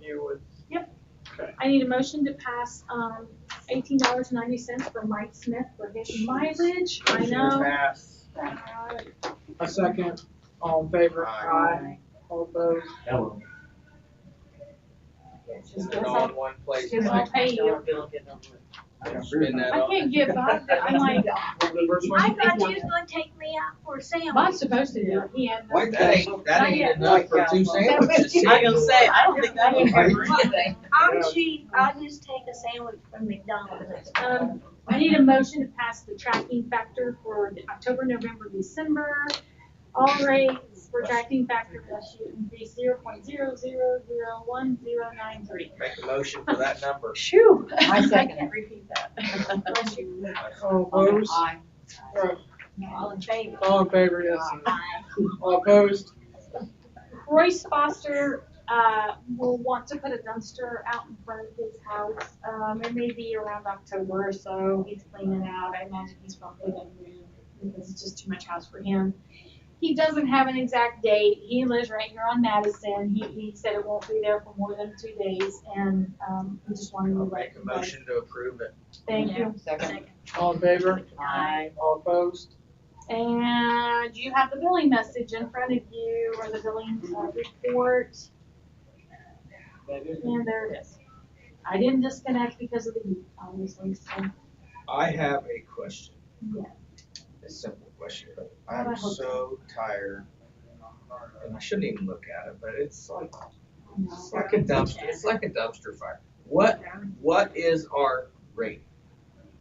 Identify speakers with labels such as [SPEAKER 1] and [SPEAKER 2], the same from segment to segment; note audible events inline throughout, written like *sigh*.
[SPEAKER 1] you would,
[SPEAKER 2] I need a motion to pass, um, eighteen dollars ninety cents for Mike Smith for his mileage, I
[SPEAKER 1] you
[SPEAKER 2] know.
[SPEAKER 1] pass.
[SPEAKER 2] Uh,
[SPEAKER 1] A second, all in favor, aye,
[SPEAKER 3] Aye.
[SPEAKER 1] all opposed,
[SPEAKER 4] Hello.
[SPEAKER 3] Is it all in one place?
[SPEAKER 2] Just
[SPEAKER 3] Mike?
[SPEAKER 2] I'll pay you.
[SPEAKER 3] Spin that
[SPEAKER 2] I
[SPEAKER 3] off.
[SPEAKER 2] can't get by, but I'm like,
[SPEAKER 5] I thought you was gonna take me out for a sandwich.
[SPEAKER 2] am I supposed to do it? He had.
[SPEAKER 3] Wait, that ain't, that ain't enough for two sandwiches.
[SPEAKER 6] I gonna
[SPEAKER 5] *laughs*
[SPEAKER 6] say, I don't think that would hurt anything.
[SPEAKER 5] I'm cheap, I just take a sandwich from McDonald's.
[SPEAKER 2] Um, I need a motion to pass the tracking factor for the October, November, December. All rates for tracking factor will shoot be zero point zero zero zero one zero nine three.
[SPEAKER 3] Make a motion for that number.
[SPEAKER 6] Shoo.
[SPEAKER 7] I second it.
[SPEAKER 6] can't repeat that.
[SPEAKER 2] Bless you.
[SPEAKER 1] *laughs* All opposed,
[SPEAKER 7] Aye.
[SPEAKER 5] All in favor?
[SPEAKER 1] all in favor, yes,
[SPEAKER 5] Aye.
[SPEAKER 1] all opposed,
[SPEAKER 2] Royce Foster, uh, will want to put a dumpster out in front of his house. Um, it may be around October, or so he's cleaning out. I imagine he's probably gonna move because it's just too much house for him. He doesn't have an exact date. He lives right here on Madison. He, he said it won't be there for more than two days and, um, we just wanted to
[SPEAKER 3] I'll
[SPEAKER 2] let
[SPEAKER 3] Make a
[SPEAKER 2] you guys.
[SPEAKER 3] motion to approve it.
[SPEAKER 2] Thank you.
[SPEAKER 7] Second.
[SPEAKER 1] all in favor,
[SPEAKER 6] Aye.
[SPEAKER 1] all opposed,
[SPEAKER 2] And you have the billing message in front of you or the billing uh, report. And there it is. I didn't disconnect because of the heat, obviously, so.
[SPEAKER 3] I have a question.
[SPEAKER 2] Yeah.
[SPEAKER 3] A simple question, but
[SPEAKER 2] I
[SPEAKER 3] I'm
[SPEAKER 2] hope-
[SPEAKER 3] so tired. And I shouldn't even look at it, but it's like,
[SPEAKER 2] you know.
[SPEAKER 3] it's like a dumpster, it's like a dumpster fire. What, what is our rate?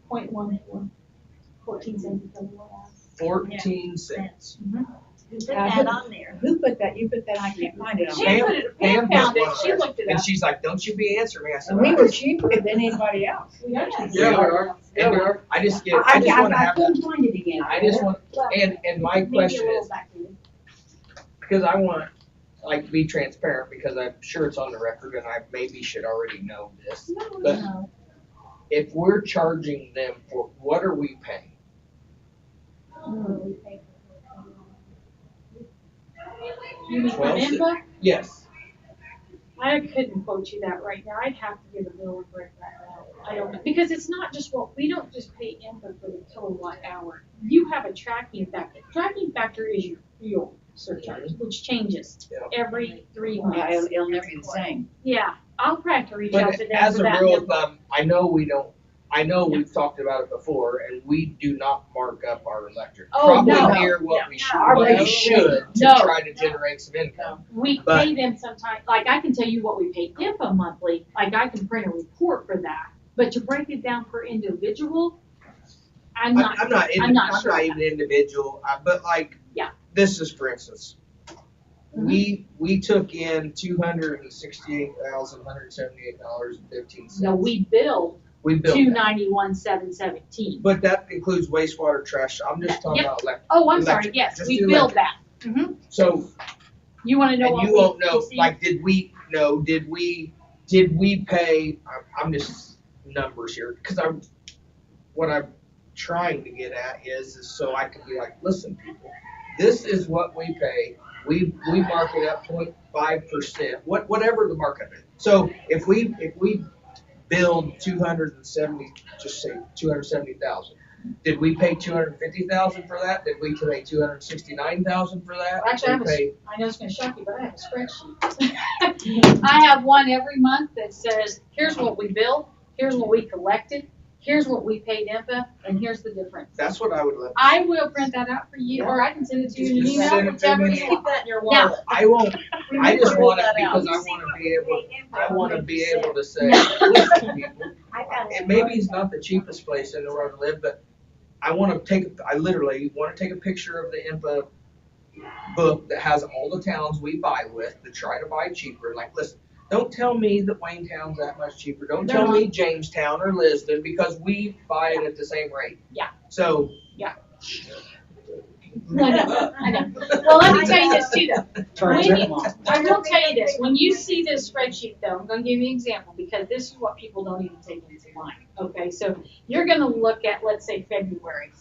[SPEAKER 2] Point one four, fourteen cents. is the lowest.
[SPEAKER 3] Fourteen cents.
[SPEAKER 5] You put that on there.
[SPEAKER 7] Who put that, you put that, I can't find it on.
[SPEAKER 2] She put it, Pam
[SPEAKER 3] Pam
[SPEAKER 2] found it,
[SPEAKER 3] put
[SPEAKER 2] she
[SPEAKER 3] one.
[SPEAKER 2] looked it
[SPEAKER 3] And
[SPEAKER 2] up.
[SPEAKER 3] she's like, don't you be answering me. I said,
[SPEAKER 7] And we were
[SPEAKER 3] "I-"
[SPEAKER 7] cheaper than anybody else.
[SPEAKER 2] Yes.
[SPEAKER 3] Yeah,
[SPEAKER 1] we are.
[SPEAKER 3] and
[SPEAKER 1] Yeah.
[SPEAKER 3] I just get, I just wanna have that.
[SPEAKER 7] couldn't find it again.
[SPEAKER 3] I just want,
[SPEAKER 2] Well,
[SPEAKER 3] and, and my
[SPEAKER 2] maybe a
[SPEAKER 3] question
[SPEAKER 2] little
[SPEAKER 3] is,
[SPEAKER 2] back to you.
[SPEAKER 3] because I want, like, to be transparent, because I'm sure it's on the record and I maybe should already know this. But
[SPEAKER 2] No.
[SPEAKER 3] if we're charging them for, what are we paying?
[SPEAKER 2] You mean
[SPEAKER 3] Twelve cents.
[SPEAKER 2] Amanda?
[SPEAKER 3] Yes.
[SPEAKER 2] I couldn't quote you that right now, I'd have to get a bill and break that out. I don't, know because it's not just what, we don't just pay input for the kilowatt hour. You have a tracking factor, tracking factor is your fuel surcharge, which changes
[SPEAKER 3] Mm-hmm. Yeah.
[SPEAKER 2] every three
[SPEAKER 7] Yeah,
[SPEAKER 2] months.
[SPEAKER 7] it'll, it'll never be the same.
[SPEAKER 2] Yeah, I'll try to reach out
[SPEAKER 3] But
[SPEAKER 2] to them
[SPEAKER 3] as
[SPEAKER 2] for
[SPEAKER 3] a
[SPEAKER 2] that.
[SPEAKER 3] rule
[SPEAKER 2] number.
[SPEAKER 3] of thumb, I know we don't, I know we've talked about it before and we do not mark up our electric.
[SPEAKER 2] Oh, no.
[SPEAKER 3] Probably near what we should,
[SPEAKER 7] Our
[SPEAKER 3] what we
[SPEAKER 7] rate-
[SPEAKER 3] should to
[SPEAKER 2] No.
[SPEAKER 3] try to generate some income.
[SPEAKER 2] We
[SPEAKER 3] But-
[SPEAKER 2] pay them sometime, like I can tell you what we pay IPA monthly, like I can print a report for that, but to break it down per individual, I'm
[SPEAKER 3] I-
[SPEAKER 2] not.
[SPEAKER 3] I'm not, in-
[SPEAKER 2] I'm not
[SPEAKER 3] I'm
[SPEAKER 2] sure
[SPEAKER 3] not
[SPEAKER 2] of
[SPEAKER 3] even individual, I- but like,
[SPEAKER 2] Yeah. Mm-hmm.
[SPEAKER 3] this is for instance, we, we took in two hundred and sixty-eight thousand, one hundred and seventy-eight dollars and fifteen
[SPEAKER 2] No,
[SPEAKER 3] cents.
[SPEAKER 2] we bill
[SPEAKER 3] We built
[SPEAKER 2] two
[SPEAKER 3] that.
[SPEAKER 2] ninety-one, seven seventeen.
[SPEAKER 3] But that includes wastewater trash, I'm just talking
[SPEAKER 2] Yep.
[SPEAKER 3] about electric.
[SPEAKER 2] Oh, I'm sorry,
[SPEAKER 3] Electric,
[SPEAKER 2] yes,
[SPEAKER 3] just
[SPEAKER 2] we
[SPEAKER 3] do
[SPEAKER 2] bill that. Mhm.
[SPEAKER 3] So
[SPEAKER 2] You wanna know
[SPEAKER 3] And
[SPEAKER 2] what we
[SPEAKER 3] you won't know,
[SPEAKER 2] receive?
[SPEAKER 3] like, did we, no, did we, did we pay, I'm, I'm just numbers here, cause I'm, what I'm trying to get at is, is so I can be like, listen, people, this is what we pay, we, we mark it up point five percent, what, whatever the markup is. So if we, if we build two hundred and seventy, just say two hundred and seventy thousand, did we pay two hundred and fifty thousand for that? Did we pay two hundred and sixty-nine thousand for that?
[SPEAKER 2] Actually,
[SPEAKER 3] We
[SPEAKER 2] I have a
[SPEAKER 3] pay-
[SPEAKER 2] I know it's gonna shock you, but I have a spreadsheet. *laughs* I have one every month that says, here's what we billed, here's what we collected, here's what we paid IPA, and here's the difference.
[SPEAKER 3] That's what I would love.
[SPEAKER 2] I will print that out for you, or I can send it to you in an
[SPEAKER 3] Just send it to
[SPEAKER 2] email, whichever
[SPEAKER 3] me.
[SPEAKER 2] you want.
[SPEAKER 6] that in your
[SPEAKER 2] wallet.
[SPEAKER 3] I won't, I just
[SPEAKER 6] Remember
[SPEAKER 3] want it
[SPEAKER 6] that out.
[SPEAKER 3] because I want to be able, I want to be
[SPEAKER 5] *laughs*
[SPEAKER 3] able to say,
[SPEAKER 2] Yeah.
[SPEAKER 3] listen, people,
[SPEAKER 5] I got it.
[SPEAKER 3] and maybe
[SPEAKER 5] *laughs*
[SPEAKER 3] it's not the cheapest place in the world to live, but I want to take, I literally want to take a picture of the info book that has all the towns we buy with to try to buy cheaper. Like, listen, don't tell me that Wayne Town's that much cheaper. Don't
[SPEAKER 2] They're
[SPEAKER 3] tell me Jamestown or Lisbon because we buy it at the same rate.
[SPEAKER 2] Yeah.
[SPEAKER 3] So.
[SPEAKER 2] Yeah. No, no, I know. Well, let me tell you this too, though.
[SPEAKER 1] turns
[SPEAKER 2] Maybe-
[SPEAKER 1] it on.
[SPEAKER 2] I will tell you this, when you see this spreadsheet though, I'm gonna give you an example, because this is what people don't even take into mind, okay? So you're gonna look at, let's say, February,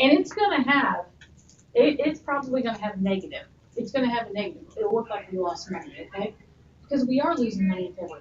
[SPEAKER 2] and it's gonna have, it, it's probably gonna have negative. It's gonna have a negative, it'll look like we lost money, okay? Because we are losing money in February.